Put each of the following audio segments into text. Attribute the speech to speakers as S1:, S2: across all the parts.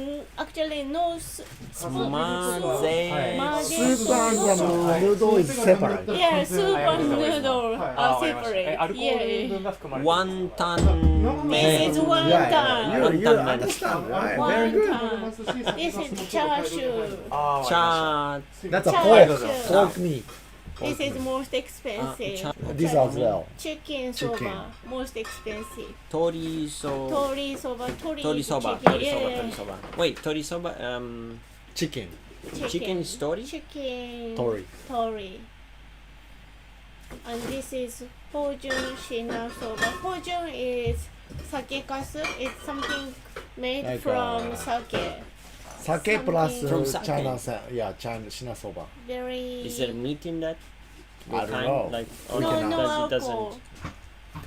S1: Mm, actually no s- spoon.
S2: Maze.
S3: Soup and noodle is separate.
S1: Yeah, soup and noodle
S4: はい
S3: Oh,
S1: are
S5: え
S1: separate.
S5: アルコ
S1: Yeah,
S5: ール
S1: yeah.
S5: 分が含まれて
S2: ワンタン
S1: This
S2: 麺
S1: is one time.
S3: Yeah, yeah, you, you
S2: Wantan-man.
S3: understand, right?
S1: Wantan.
S3: Very good.
S1: This is chashu.
S5: あー
S2: チャー
S3: That's a pork,
S1: Chashu.
S3: pork meat.
S1: This is most
S2: あチャ
S1: expensive.
S3: This as well.
S1: Chicken soba, most expensive.
S2: 鶏そ
S1: Tori soba, tori
S2: 鶏
S1: is
S2: そば
S1: chicken.
S2: 鶏そば
S1: Yeah,
S2: 鶏そば Wait 鶏そば um
S3: Chicken.
S1: yeah.
S2: chicken is tori
S1: Chicken.
S3: Tori.
S1: Tori. And this is Hojun Shina Soba. Hojun is sake kasu. It's something made
S3: Like,
S1: from
S3: uh,
S1: sake.
S3: Sake plus
S2: From sake.
S3: China, sa- yeah, China, Shina soba.
S1: Very.
S2: Is there meat in that
S3: I don't know.
S2: like
S3: We
S1: no,
S3: cannot.
S1: no
S2: does it
S1: alcohol.
S2: doesn't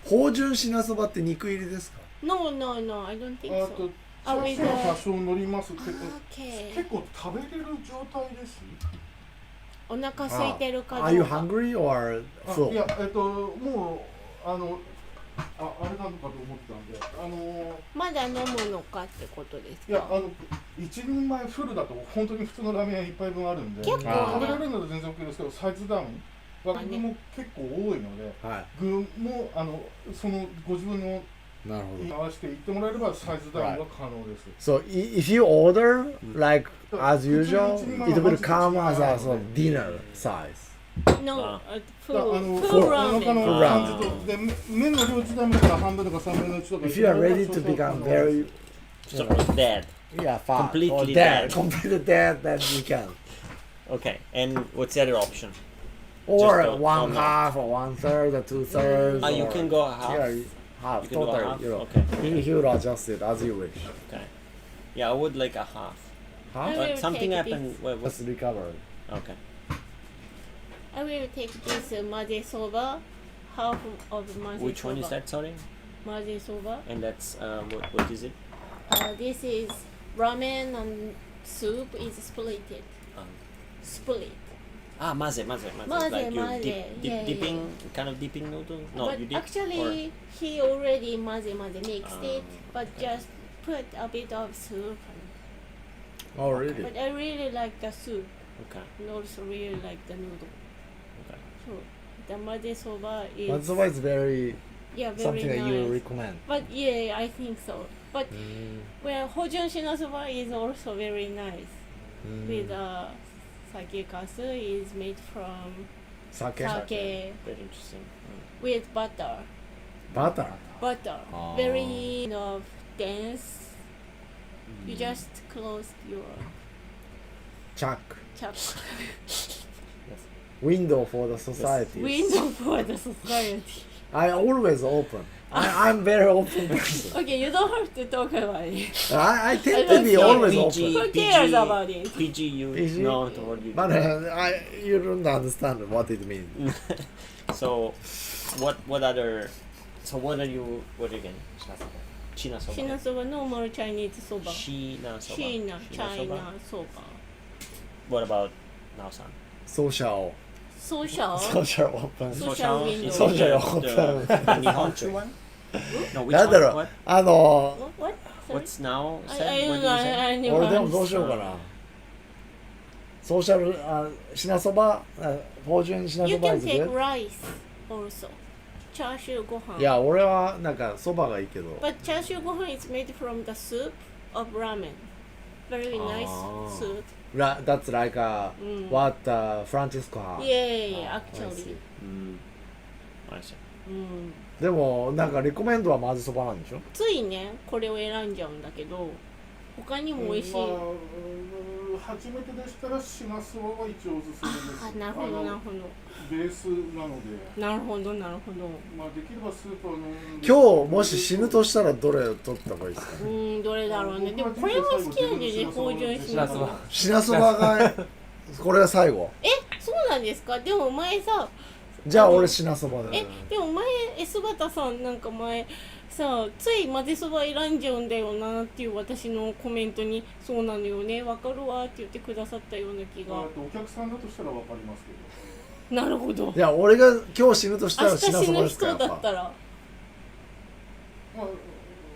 S3: 芳醇品そばって肉入りですか
S1: No, no, no. I don't think
S4: あ
S1: so.
S4: と
S1: Are we
S4: 多
S1: there?
S4: 少乗りますってこと
S1: Okay.
S4: 結構食べれる状態です
S1: お腹空いてるか
S3: Are
S1: ど
S3: you
S1: うか。
S3: hungry or
S4: あ
S3: full?
S4: いやえっともうあのああれなのかと思ったんであの
S1: まだ飲むのかってことです
S4: いやあ
S1: か。
S4: の一人前フルだと本当に普通のラーメン屋一杯分あるんで
S1: 結構
S3: あー
S4: 食べられ
S1: ね。
S4: るなら全然 OK ですけどサイズダウンは
S1: あね
S4: 具も結構多いので
S3: は
S4: 具もあのそのご自分の
S3: い。なるほ
S4: に
S3: ど。
S4: 合わせていってもらえればサイズダウンは可能です。
S3: So i- if you order like as usual, it will come as a sort of dinner size.
S1: No,
S2: あ
S1: uh,
S4: だから
S1: full,
S4: あの
S1: full
S4: お腹
S1: ramen.
S4: の感じとで麺の量自体もだから半分とか三分の一とか。
S3: If you are ready to become very
S2: So dead
S3: yeah fat or
S2: Completely
S3: dead,
S2: dead.
S3: completely dead, then you can.
S2: Okay and what's the other option
S3: Or
S2: Just a-
S3: one
S2: or not.
S3: half, or one third, or two thirds.
S2: Ah you
S3: or-
S2: can go half
S3: Yeah, you- half
S2: You can go
S3: total.
S2: half?
S3: You know,
S2: Okay.
S3: you, you will adjust it as you wish.
S2: Okay Yeah I would like a half
S1: I
S3: Half
S1: will
S2: But something
S1: take
S2: happened wait,
S3: was
S2: what's
S3: recovered.
S2: Okay
S1: I will take this maze soba, half of maze soba.
S2: Which one is that sorry
S1: Maze soba.
S2: And that's uh, what what is it
S1: Uh, this is ramen and soup is split.
S2: Um,
S1: Split.
S2: Ah, maze, maze, maze.
S1: Maze,
S2: like you
S1: maze,
S2: dip, dip,
S1: yeah, yeah.
S2: dipping, kind of dipping noodle. No,
S1: but
S2: you dip.
S1: actually, he already maze maze mixed it,
S2: Ah,
S1: but just put a bit of soup.
S3: Oh really?
S1: But I really like the soup.
S2: or, okay.
S1: and also really like the noodle.
S2: Okay.
S1: So the maze soba is
S3: That's why it's very
S1: yeah very
S3: something
S1: nice.
S3: that you recommend.
S1: but yeah, I think so. But well, Hojun Shinasoba is also very nice.
S3: Mm.
S1: With uh, sake kasu is made from
S3: Sake,
S1: sake
S2: Very interesting. Mm.
S1: with butter.
S3: butter.
S1: Butter.
S3: Ah.
S1: Very you know, dense. You just closed your
S3: Chuck.
S1: chapter.
S3: Window for the society.
S1: window for the society.
S3: I always open. I, I'm very open person.
S1: Okay, you don't have to talk about it.
S3: I, I tend
S1: I
S3: to
S1: don't
S3: be
S1: care.
S3: always
S2: PG.
S3: open.
S1: Who cares
S2: PG.
S1: about it?
S2: PG, you
S3: PG?
S2: know what you.
S3: But uh, I, you don't understand what it means.
S2: so, what what other? So what are you? What again? China soba.
S1: Shinasoba, normal Chinese soba.
S2: China soba.
S1: China,
S2: soba.
S1: China soba.
S2: What about Naosan?
S3: Social.
S1: Social.
S3: Social open.
S1: Social window.
S2: is
S3: Social
S2: the, the Nihonchu one. No, which
S3: なんだ
S2: one?
S3: ろう
S2: What?
S3: あの
S1: What? what? Sorry?
S2: What's now?
S1: I,
S2: said?
S1: I don't know.
S2: what did you say?
S1: I, I
S3: ー
S1: knew
S3: 俺で
S1: I'm
S3: もどうしようかなソーシャルあ品そば芳醇品
S1: You
S3: そば
S1: can
S3: です
S1: take rice also. Chashu gohan.
S3: いや俺はなんかそばがいいけど
S1: But chashu gohan is made from the soup of ramen. Very nice
S3: Ah.
S1: soup.
S3: ラ That's like a
S1: うん
S3: what uh, Francisco had.
S1: Yay,
S3: I see.
S1: actually.
S2: Mm. I see.
S1: うん
S3: でもなんかレコメンドはまずそばなんでしょ
S1: ついね、これを選んじゃうんだけど、他にも美味しい。
S4: まあうん初めてでしたらシナスワは一応おすすめです。
S1: あ、なるほど、
S4: あの
S1: なるほ
S4: ベースなので、
S1: ど。なるほど、なるほど。
S4: まあできればスープは飲んで
S3: 今日もし死ぬとしたらどれを取った方がいいですか
S1: うーん、どれだろうね。でもこれも好きなんだよね、芳醇しな
S5: ナスワ
S3: 品そばがこれは最後
S1: え、そうなんですかでも前さ、
S3: じゃあ俺品そばで
S1: えでも前え姿さんなんか前さつい混ぜそば選んじゃうんだよなっていう私のコメントに「そうなのよねわかるわ」って言ってくださったような気
S4: まあ
S1: が
S4: あとお客さんだとしたらわかりますけど。
S1: なるほど
S3: いや俺が今日死ぬとした
S1: 明
S3: ら
S1: 日
S3: 品
S1: 死
S3: そば
S1: ぬ
S3: です
S1: 人
S3: かやっ
S1: だっ
S3: ぱ
S1: たら
S4: ま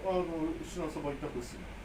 S4: ああのシナそば一択ですね。